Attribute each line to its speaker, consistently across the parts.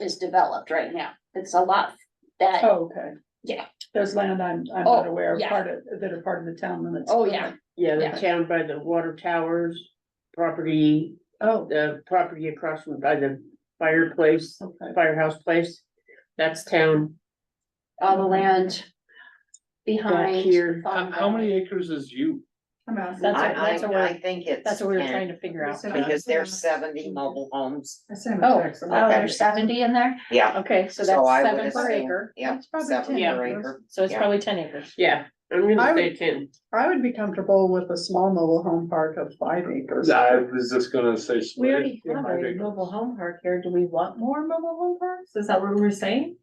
Speaker 1: is developed right now. It's a lot that,
Speaker 2: Oh, Okay.
Speaker 1: Yeah.
Speaker 2: There's land I'm, I'm
Speaker 1: Oh,
Speaker 2: not aware of,
Speaker 1: yeah.
Speaker 2: part of, that are part of the town limits.
Speaker 1: oh, yeah,
Speaker 3: Yeah,
Speaker 1: Yeah.
Speaker 3: the town by the water towers, property,
Speaker 2: Oh,
Speaker 3: the property across from by the fireplace,
Speaker 2: okay.
Speaker 3: firehouse place. That's town
Speaker 1: all the land
Speaker 3: back
Speaker 1: behind.
Speaker 3: here.
Speaker 4: How, how many acres is you?
Speaker 2: I'm out.
Speaker 5: I,
Speaker 2: That's, what-
Speaker 5: I,
Speaker 2: that's what
Speaker 5: I
Speaker 2: we're,
Speaker 5: think it's.
Speaker 2: that's what we were
Speaker 5: 10,
Speaker 2: trying to figure out.
Speaker 5: Because there's seventy mobile homes,
Speaker 1: Oh,
Speaker 2: Oh,
Speaker 1: oh, there's seventy in there?
Speaker 5: yeah,
Speaker 2: okay, so
Speaker 5: So I
Speaker 2: that's seven
Speaker 5: would
Speaker 2: per
Speaker 5: assume,
Speaker 2: acre.
Speaker 5: yeah,
Speaker 2: That's probably
Speaker 5: seven
Speaker 2: 10
Speaker 5: per
Speaker 2: acres.
Speaker 5: acre,
Speaker 2: So it's
Speaker 5: yeah.
Speaker 2: probably ten acres.
Speaker 3: Yeah, I'm gonna
Speaker 2: I
Speaker 3: say ten.
Speaker 2: I would be comfortable with a small mobile home park of five acres.
Speaker 4: I was just gonna say.
Speaker 6: We already have a mobile home park here. Do we want more mobile home
Speaker 2: oh.
Speaker 6: parks? Is that what we're saying?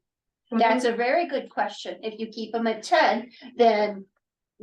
Speaker 1: That's a very good question. If you keep them at ten, then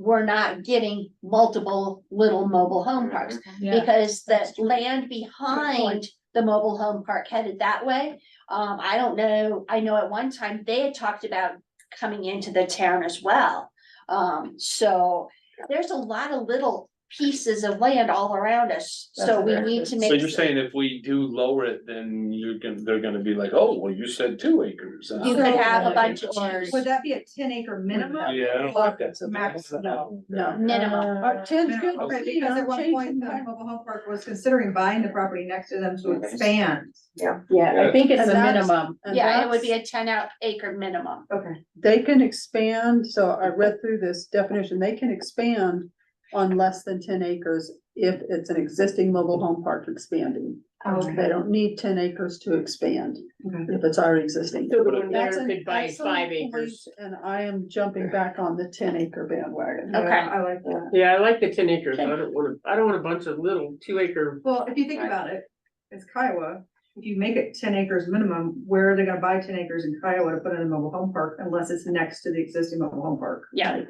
Speaker 1: we're not getting multiple little mobile home parks.
Speaker 6: Yeah.
Speaker 1: Because the land behind the mobile home park headed that way. Um, I don't know, I know at one time they had talked about coming into the town as well. Um, so there's a lot of little pieces of land all around us, so
Speaker 2: That's
Speaker 1: we
Speaker 2: correct.
Speaker 1: need to make.
Speaker 4: So you're saying if we do lower it, then you're gonna, they're gonna be like, oh, well, you said two acres.
Speaker 1: You could have a bunch of
Speaker 4: acres.
Speaker 1: chairs.
Speaker 7: Would that be a ten acre minimum?
Speaker 4: Yeah. I don't
Speaker 2: Or
Speaker 4: think that's-
Speaker 2: max, no, no.
Speaker 1: Minimum.
Speaker 2: Uh, ten's good.
Speaker 7: Right,
Speaker 2: you know,
Speaker 7: Because at one
Speaker 2: change
Speaker 7: point,
Speaker 2: the-
Speaker 7: the mobile home park was considering buying the property next to them to
Speaker 5: Okay.
Speaker 7: expand.
Speaker 2: Yeah, I think it's
Speaker 6: And
Speaker 2: a
Speaker 6: that's-
Speaker 2: minimum. and
Speaker 1: Yeah, it would be
Speaker 2: that's-
Speaker 1: a ten out acre minimum.
Speaker 7: Okay.
Speaker 2: They can expand, so I read through this definition, they can expand on less than ten acres if it's an existing mobile home park expanding. They
Speaker 7: Okay.
Speaker 2: don't need ten acres to expand
Speaker 7: Okay.
Speaker 2: if it's already existing.
Speaker 3: So the one
Speaker 2: That's
Speaker 3: there
Speaker 2: an
Speaker 3: could buy five
Speaker 2: excellent point,
Speaker 3: acres.
Speaker 2: And I am jumping back on the ten acre bandwagon.
Speaker 7: Yeah,
Speaker 1: Okay.
Speaker 7: I like that.
Speaker 3: Yeah, I like the ten acres. I don't wanna, I don't want a bunch of little two acre.
Speaker 7: Well, if you think about it, it's Kiowa. If you make it ten acres minimum, where are they gonna buy ten acres in Kiowa to put in a mobile home park unless it's next to the existing mobile home park?
Speaker 1: Yeah.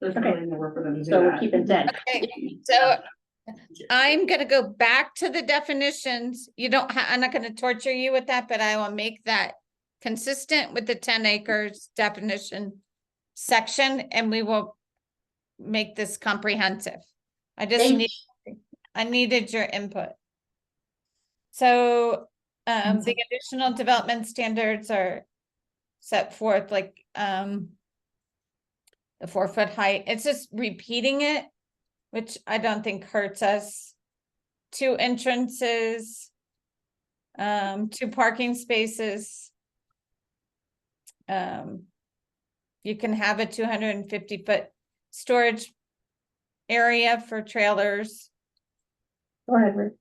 Speaker 7: There's
Speaker 2: Okay.
Speaker 7: really nowhere for them to do
Speaker 2: So we're
Speaker 7: that.
Speaker 2: keeping ten.
Speaker 8: So I'm gonna go back to the definitions. You don't, ha- I'm not gonna torture you with that, but I will make that consistent with the ten acres definition section and we will make this comprehensive. I just
Speaker 1: Thank
Speaker 8: need, I needed your input. So um the additional development standards are set forth like um the four foot height. It's just repeating it which I don't think hurts us. Two entrances. Um, two parking spaces. Um. You can have a two hundred and fifty foot storage. Area for trailers.
Speaker 6: Go ahead, Rick.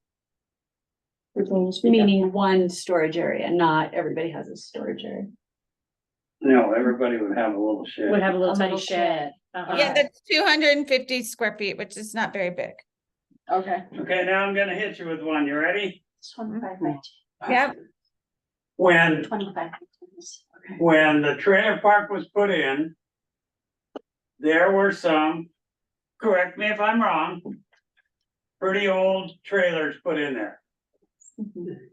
Speaker 6: You're going to speak up.
Speaker 9: Meaning one storage area, not everybody has a storage area.
Speaker 10: No, everybody would have a little shed.
Speaker 6: Would have a little
Speaker 9: A
Speaker 6: tiny
Speaker 9: little
Speaker 6: shed. Uh-huh.
Speaker 8: Yeah, that's two hundred and fifty square feet, which is not very big.
Speaker 2: Okay.
Speaker 10: Okay, now I'm gonna hit you with one. You ready?
Speaker 1: Twenty-five by
Speaker 8: Yeah,
Speaker 10: When,
Speaker 1: twenty-five. Okay.
Speaker 10: when the trailer park was put in, there were some, correct me if I'm wrong, pretty old trailers put in there.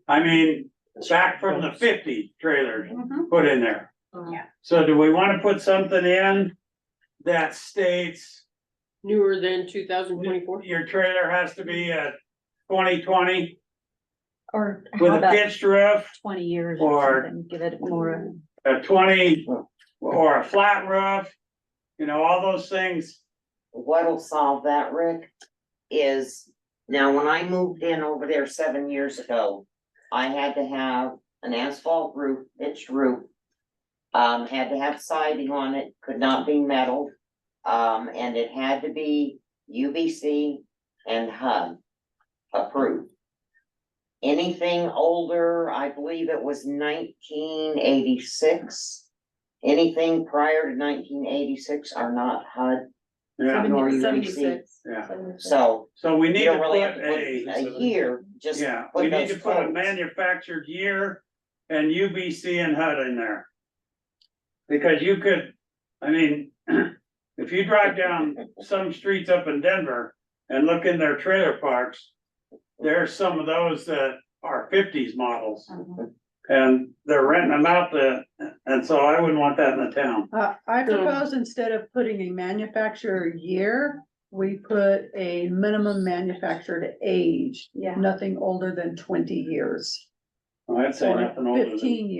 Speaker 10: I mean, back from the fifty trailers put in there.
Speaker 1: Yeah.
Speaker 10: So do we wanna put something in that states
Speaker 3: Newer than two thousand twenty-four.
Speaker 10: your trailer has to be a twenty twenty
Speaker 9: Or
Speaker 10: with
Speaker 9: how
Speaker 10: a
Speaker 9: about
Speaker 10: pitched roof?
Speaker 9: twenty years or
Speaker 10: or-
Speaker 9: something, give it more.
Speaker 10: a twenty or a flat roof, you know, all those things.
Speaker 5: what'll solve that, Rick? Is, now, when I moved in over there seven years ago, I had to have an asphalt roof, pitched roof. Um, had to have siding on it, could not be metal, um, and it had to be UBC and HUD approved. Anything older, I believe it was nineteen eighty-six. Anything prior to nineteen eighty-six are not HUD
Speaker 10: Yeah,
Speaker 5: nor you receive.
Speaker 6: Seventy-six.
Speaker 10: yeah.
Speaker 5: So
Speaker 10: So we
Speaker 5: you
Speaker 10: need to
Speaker 5: don't
Speaker 10: put
Speaker 5: really have to put
Speaker 10: a,
Speaker 5: a year, just.
Speaker 10: yeah, we need
Speaker 5: those
Speaker 10: to put a
Speaker 5: codes.
Speaker 10: manufactured year and UBC and HUD in there. Because you could, I mean, if you drive down some streets up in Denver and look in their trailer parks, there's some of those that are fifties models and they're renting them out to, and so I wouldn't want that in the town.
Speaker 2: Uh, I
Speaker 3: So-
Speaker 2: propose instead of putting a manufacturer year, we put a minimum manufactured age,
Speaker 6: Yeah.
Speaker 2: nothing older than twenty years.
Speaker 10: I'd say
Speaker 2: or
Speaker 10: nothing older than.
Speaker 2: Fifteen years.